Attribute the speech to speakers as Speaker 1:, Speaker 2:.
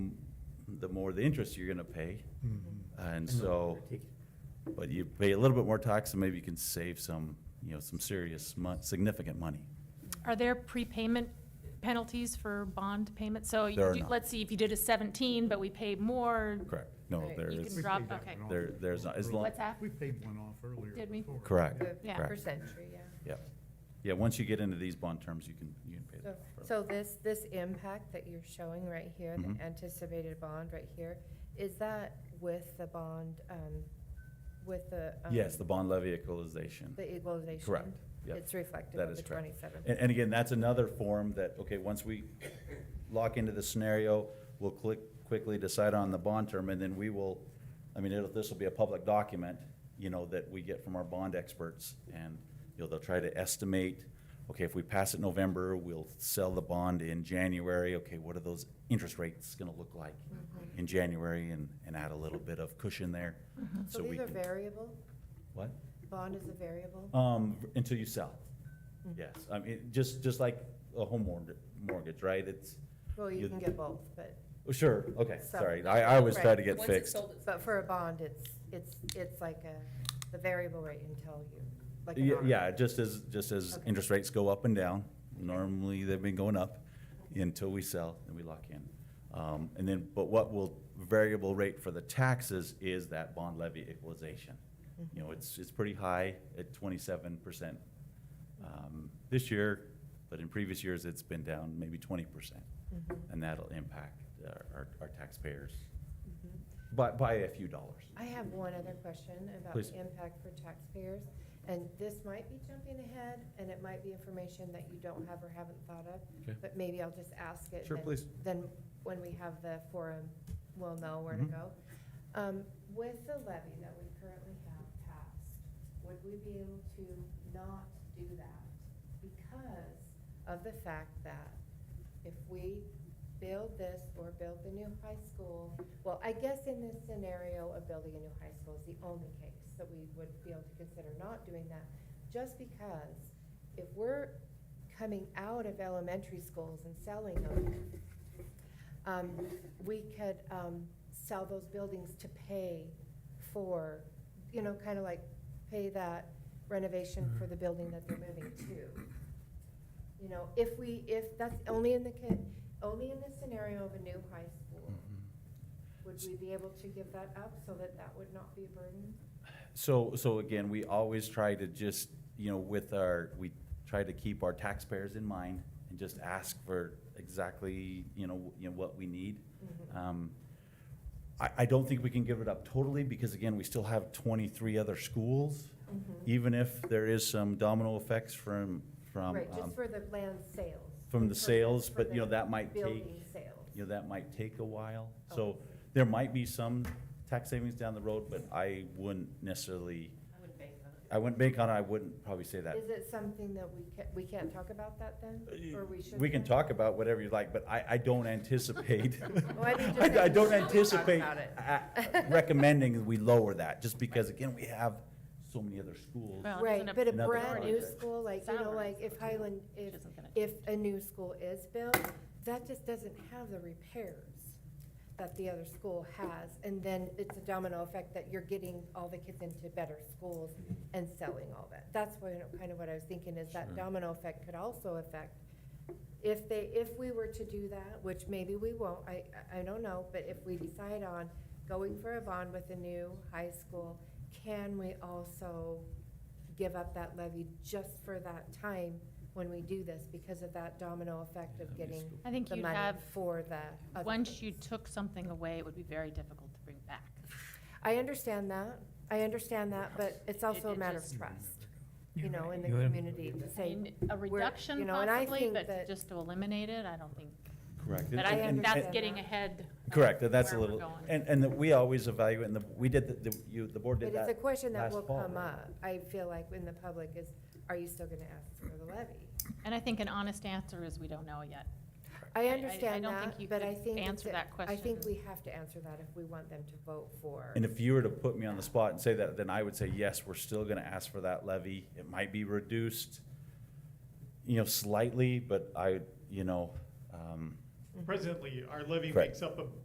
Speaker 1: bit more the interest you're gonna pay.
Speaker 2: Mm-hmm.
Speaker 1: And so, but you pay a little bit more tax and maybe you can save some, you know, some serious mon- significant money.
Speaker 3: Are there prepayment penalties for bond payments? So you
Speaker 1: There are
Speaker 3: do-
Speaker 1: not.
Speaker 3: let's see, if you did a seventeen, but we paid more,
Speaker 1: Correct. No,
Speaker 4: Right.
Speaker 1: there
Speaker 3: You
Speaker 1: is,
Speaker 3: can- Drop- okay.
Speaker 1: there, there's not, as long,
Speaker 3: what's that?
Speaker 2: We paid one off earlier.
Speaker 3: Did we?
Speaker 2: before.
Speaker 1: correct,
Speaker 3: Yeah.
Speaker 4: Per
Speaker 1: correct.
Speaker 4: century, yeah.
Speaker 1: Yeah. Yeah, once you get into these bond terms, you can, you can pay
Speaker 4: So-
Speaker 1: that.
Speaker 4: So this, this impact that you're showing right here,
Speaker 1: Mhm.
Speaker 4: the anticipated bond right here, is that with the bond, um, with the? um,
Speaker 1: Yes, the bond levy equalization.
Speaker 4: The equalization?
Speaker 1: Correct, yep.
Speaker 4: It's reflective
Speaker 1: That
Speaker 4: of
Speaker 1: is
Speaker 4: the
Speaker 1: correct.
Speaker 4: twenty-seven?
Speaker 1: And, and again, that's another form that, okay, once we lock into the scenario, we'll click, quickly decide on the bond term, and then we will, I mean, it'll, this will be a public document, you know, that we get from our bond experts, and, you know, they'll try to estimate, okay, if we pass it November, we'll sell the bond in January, okay, what are those interest rates gonna look like
Speaker 4: Mm-hmm.
Speaker 1: in January, and, and add a little bit of cushion there, so
Speaker 4: Mm-hmm. So
Speaker 1: we
Speaker 4: these are
Speaker 1: can,
Speaker 4: variable?
Speaker 1: what?
Speaker 4: Bond is a variable?
Speaker 1: Um, until you sell.
Speaker 4: Mm-hmm.
Speaker 1: Yes, I mean, just, just like a home mortgage, mortgage, right? It's,
Speaker 4: Well,
Speaker 1: you-
Speaker 4: you can get both, but,
Speaker 1: oh, sure, okay,
Speaker 4: So-
Speaker 1: sorry. I, I always try
Speaker 4: Right.
Speaker 1: to get
Speaker 5: Once it's
Speaker 1: fixed.
Speaker 5: sold, it's.
Speaker 4: but for a bond, it's, it's, it's like a, the variable rate until you, like an
Speaker 1: Yeah,
Speaker 4: arm.
Speaker 1: yeah, just as, just as
Speaker 4: Okay.
Speaker 1: interest rates go up and down, normally they've been going up until we sell and we lock in. Um, and then, but what will variable rate for the taxes is that bond levy equalization.
Speaker 4: Mm-hmm.
Speaker 1: You know, it's, it's pretty high at twenty-seven percent, um, this year, but in previous years, it's been down maybe twenty percent.
Speaker 4: Mm-hmm.
Speaker 1: And that'll impact our, our- our taxpayers
Speaker 4: Mm-hmm.
Speaker 1: by, by a few dollars.
Speaker 4: I have one other question about
Speaker 1: Please.
Speaker 4: the impact for taxpayers, and this might be jumping ahead, and it might be information that you don't have or haven't thought
Speaker 1: Okay.
Speaker 4: of, but maybe I'll just ask it.
Speaker 1: Sure,
Speaker 4: then-
Speaker 1: please.
Speaker 4: Then, when we have the forum, we'll know where to
Speaker 1: Mhm.
Speaker 4: go. Um, With the levy that we currently have passed, would we be able to not do that? Because of the fact that if we build this or build the new high school, well, I guess in this scenario of building a new high school is the only case that we would be able to consider not doing that, just because if we're coming out of elementary schools and selling them, um, we could, um, sell those buildings to pay for, you know, kind of like pay that renovation for the building that they're moving to. You know, if we, if that's only in the, con- only in the scenario of a new high
Speaker 1: Mm-hmm.
Speaker 4: school, would we be able to give that up so that that would not be a burden?
Speaker 1: So, so again, we always try to just, you know, with our, we try to keep our taxpayers in mind and just ask for exactly, you know, you know, what we need. Um, I, I don't think we can give it up totally because again, we still have twenty-three other schools. Even if there is some domino effects from, from,
Speaker 4: Right,
Speaker 1: um,
Speaker 4: just for the land sales.
Speaker 1: from the
Speaker 4: For
Speaker 1: sales,
Speaker 4: for
Speaker 1: but you know,
Speaker 4: the
Speaker 1: that might take.
Speaker 4: Building sales.
Speaker 1: you know, that might take a while.
Speaker 4: Oh.
Speaker 1: So there might be some tax savings down the road, but I wouldn't necessarily. I wouldn't bank on it. I wouldn't probably say that.
Speaker 4: Is it something that we can, we can't talk about that
Speaker 1: Uh,
Speaker 4: then? Or we should?
Speaker 1: We can talk about whatever you like, but I, I don't anticipate.
Speaker 4: Well, I think just
Speaker 1: I I don't
Speaker 4: that we should talk
Speaker 1: anticipate
Speaker 4: about it.
Speaker 1: uh, recommending that we lower that, just because again, we have so many other schools.
Speaker 3: Well,
Speaker 4: Right,
Speaker 3: Another
Speaker 4: but a
Speaker 1: another
Speaker 4: brand new
Speaker 1: project.
Speaker 4: school, like, you know,
Speaker 3: Salary.
Speaker 4: like if Highland, if,
Speaker 3: isn't gonna
Speaker 4: if a new school is built, that just doesn't have the repairs that the other school has. And then it's a domino effect that you're getting all the kids into better schools and selling all that. That's what, kind of what I was thinking is that
Speaker 1: Sure.
Speaker 4: domino effect could also affect, if they, if we were to do that, which maybe we won't, I, I- I don't know, but if we decide on going for a bond with a new high school, can we also give up that levy just for that time when we do this because of that domino effect of getting
Speaker 3: I think
Speaker 4: the
Speaker 3: you'd
Speaker 4: money
Speaker 3: have,
Speaker 4: for the. other
Speaker 3: once
Speaker 4: things.
Speaker 3: you took something away, it would be very difficult to bring back.
Speaker 4: I understand that, I understand that, but it's also a
Speaker 3: It- it
Speaker 4: matter of
Speaker 3: just-
Speaker 4: trust, you know, in the
Speaker 6: You have-
Speaker 4: community to
Speaker 3: I
Speaker 4: say.
Speaker 3: mean, A
Speaker 4: we're- you
Speaker 3: reduction
Speaker 4: know, and I
Speaker 3: possibly,
Speaker 4: think
Speaker 3: but
Speaker 4: that-
Speaker 3: just to eliminate it, I don't think,
Speaker 1: Correct.
Speaker 3: but
Speaker 4: I
Speaker 3: I
Speaker 1: And-
Speaker 3: think
Speaker 1: and-
Speaker 3: that's
Speaker 4: understand
Speaker 3: getting
Speaker 4: that.
Speaker 3: ahead. of
Speaker 1: Correct, that's a
Speaker 3: where we're
Speaker 1: little,
Speaker 3: going.
Speaker 1: and, and that we always evaluate, and the, we did, the- the, you, the board did
Speaker 4: But
Speaker 1: that.
Speaker 4: it's a question that
Speaker 1: last
Speaker 4: will
Speaker 1: fall,
Speaker 4: come
Speaker 1: right?
Speaker 4: up, I feel like, in the public is, are you still gonna ask for the levy?
Speaker 3: And I think an honest answer is we don't know yet.
Speaker 4: I
Speaker 3: I- I
Speaker 4: understand
Speaker 3: don't think
Speaker 4: that,
Speaker 3: you
Speaker 4: but
Speaker 3: could
Speaker 4: I think.
Speaker 3: answer
Speaker 4: it's a-
Speaker 3: that
Speaker 4: I think
Speaker 3: question.
Speaker 4: we have to answer that if we want them to vote for.
Speaker 1: And if you were to put me on the spot and say that, then I would say, yes, we're still gonna ask for that levy. It might be reduced, you know, slightly, but I, you know, um,
Speaker 6: Presently, our levy
Speaker 1: Correct.
Speaker 6: makes up a